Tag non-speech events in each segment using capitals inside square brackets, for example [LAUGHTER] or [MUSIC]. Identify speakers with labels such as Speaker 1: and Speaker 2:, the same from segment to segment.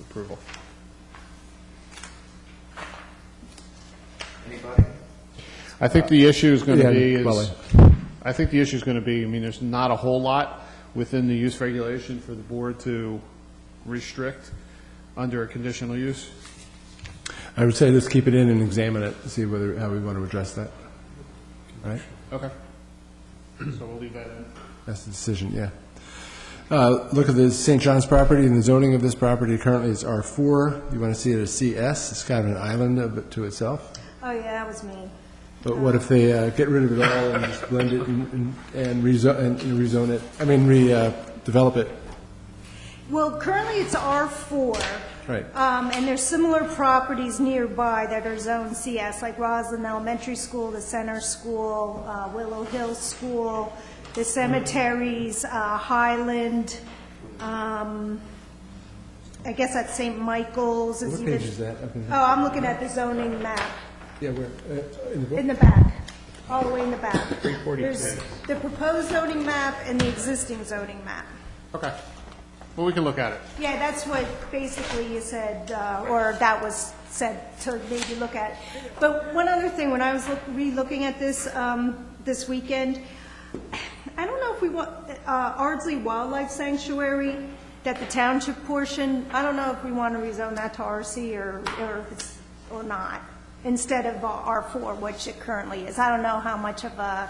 Speaker 1: approval.
Speaker 2: Anybody?
Speaker 3: I think the issue is going
Speaker 1: Yeah,
Speaker 3: to be
Speaker 1: Quelly.
Speaker 3: is, I think the issue is going to be, I mean, there's not a whole lot within the use regulation for the board to restrict under a conditional use.
Speaker 1: I would say let's keep it in and examine it, see whether, how we want to address that. All right?
Speaker 3: Okay. So we'll leave that in.
Speaker 1: That's the decision, yeah. Uh, Look at the St. John's property, and the zoning of this property currently is R4. You want to see it as CS, it's kind of an island of it to itself.
Speaker 4: Oh, yeah, that was me.
Speaker 1: But what if they uh, get rid of it all and just blend it and- and and rezo- and rezone it, I mean, redevelop it?
Speaker 4: Well, currently it's R4.
Speaker 1: Right.
Speaker 4: Um, And there's similar properties nearby that are Zone CS, like Roslyn Elementary School, the Center School, uh, Willow Hill School, the cemeteries, uh, Highland, um, I guess that's St. Michael's. is
Speaker 1: What
Speaker 4: even-
Speaker 1: page is that? Up in-
Speaker 4: Oh, I'm looking at the zoning map.
Speaker 1: Yeah, where, uh, in the book?
Speaker 4: In the back, all the way in the back. There's the proposed zoning map and the existing zoning map.
Speaker 3: Okay. Well, we can look at it.
Speaker 4: Yeah, that's what basically you said, uh, or that was said to maybe look at. But one other thing, when I was look- re-looking at this, um, this weekend, I don't know if we want, uh, Ardsley Wildlife Sanctuary, that the township portion, I don't know if we want to rezone that to RC or, or if it's, or not, instead of R4, which it currently is. I don't know how much of a,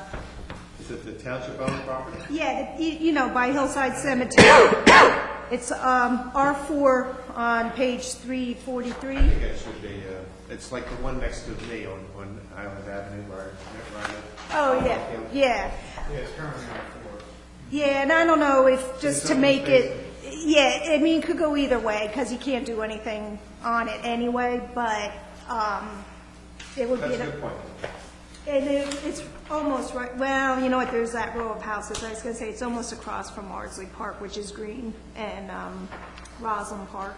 Speaker 2: Is it the township owned property?
Speaker 4: yeah, the- you you know, by Hillside Cemetery. [COUGHS] It's um, R4 on page 343.
Speaker 2: I think it should be, uh, it's like the one next to me on, on Island Avenue where, where I live.
Speaker 4: Oh, yeah, yeah.
Speaker 2: Yeah, it's currently R4.
Speaker 4: Yeah, and I don't know if, just to make it, yeah, I mean, it could go either way, because you can't do anything on it anyway, but um, it would be,
Speaker 2: That's a
Speaker 4: an-
Speaker 2: good point.
Speaker 4: and it- it's almost right, well, you know what, there's that row of houses, I was going to say, it's almost across from Ardsley Park, which is green, and um, Roslyn Park.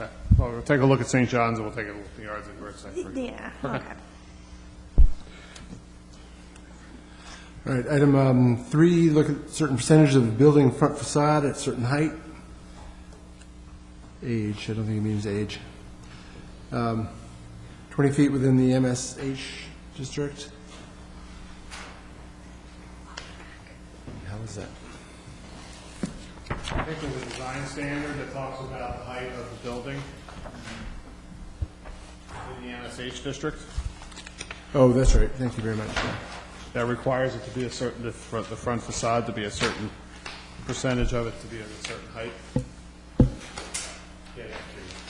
Speaker 3: Okay. Well, we'll take a look at St. John's and we'll take a look at the yards and works.
Speaker 4: Yeah, okay.
Speaker 1: All right, item um, three, look at certain percentage of the building front facade at certain height. Age, I don't think it means age. Um, 20 feet within the MSH district. How is that?
Speaker 3: I think there's a design standard that talks about the height of the building in the NSH district
Speaker 1: Oh, that's right, thank you very much. yeah.
Speaker 3: that requires it to be a certain, the front the front facade to be a certain percentage of it to be at a certain height. Yeah,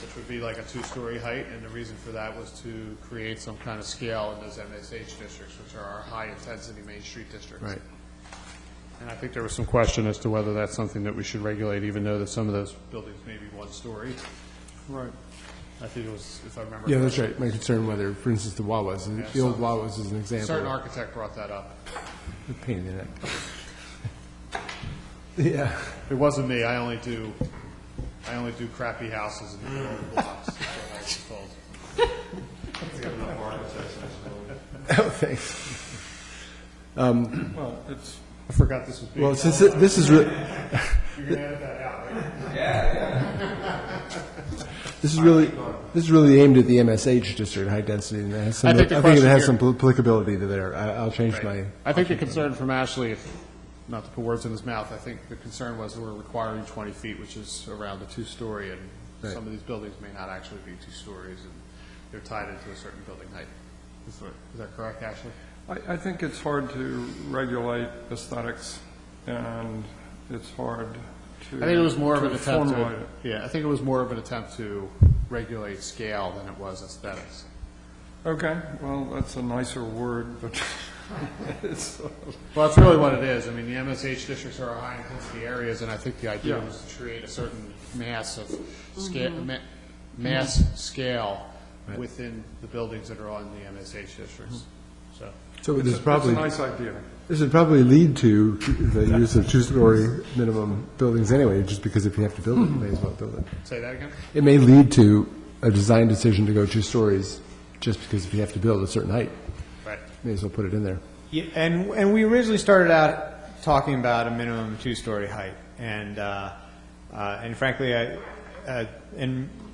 Speaker 3: Which would be like a two-story height, and the reason for that was to create some kind of scale in those MSH districts, which are our high-intensity Main Street districts.
Speaker 1: Right.
Speaker 3: And I think there was some question as to whether that's something that we should regulate, even though that some of those buildings may be one story. Right. I think it was, if I remember.
Speaker 1: Yeah, that's
Speaker 3: correctly.
Speaker 1: right, my concern whether, for instance, the Wawas, and the old Wawas is an example.
Speaker 3: Certain architect brought that up.
Speaker 1: A Pain in the neck. [LAUGHS] Yeah. [LAUGHS]
Speaker 3: It wasn't me, I only do, I only do crappy houses and middle of blocks, is what I was told.
Speaker 1: Oh, thanks.
Speaker 3: Well, it's. I forgot this was being.
Speaker 1: Well, since it- this is, re-
Speaker 3: You're gonna edit that out, right?
Speaker 1: This is really, this is really aimed at the MSH district, high density, and it has some,
Speaker 3: I
Speaker 1: I
Speaker 3: think the
Speaker 1: think it
Speaker 3: question
Speaker 1: has some
Speaker 3: here-
Speaker 1: pl- applicability to there. I- I'll change my,
Speaker 3: I think the concern from Ashley, if, not to put words in his mouth, I think the concern was we're requiring 20 feet, which is around the two-story, and
Speaker 1: Right.
Speaker 3: some of these buildings may not actually be two stories, and they're tied into a certain building height. Is what- is that correct, Ashley?
Speaker 5: I, I think it's hard to regulate aesthetics, and it's hard to.
Speaker 3: I think it was more of an attempt
Speaker 5: formulate
Speaker 3: to,
Speaker 5: it.
Speaker 3: yeah, I think it was more of an attempt to regulate scale than it was aesthetics.
Speaker 5: Okay, well, that's a nicer word, but [LAUGHS] it's,
Speaker 3: Well, that's really what it is. I mean, the MSH districts are our high-intensity areas, and I think the idea
Speaker 5: Yeah.
Speaker 3: was to create a certain mass of scale, ma- mass scale within the buildings that are on the MSH districts, so.
Speaker 1: so this
Speaker 5: it's
Speaker 1: is
Speaker 5: a it's a
Speaker 1: probably,
Speaker 5: nice idea.
Speaker 1: this would probably lead to the use of two-story minimum buildings anyway, just because if you have to build it, you may as well build it.
Speaker 3: Say that again?
Speaker 1: It may lead to a design decision to go two stories, just because if you have to build a certain height,
Speaker 3: Right.
Speaker 1: may as well put it in there.
Speaker 6: Yeah, and, and we originally started out talking about a minimum two-story height, and, uh, uh, and frankly, I, uh, and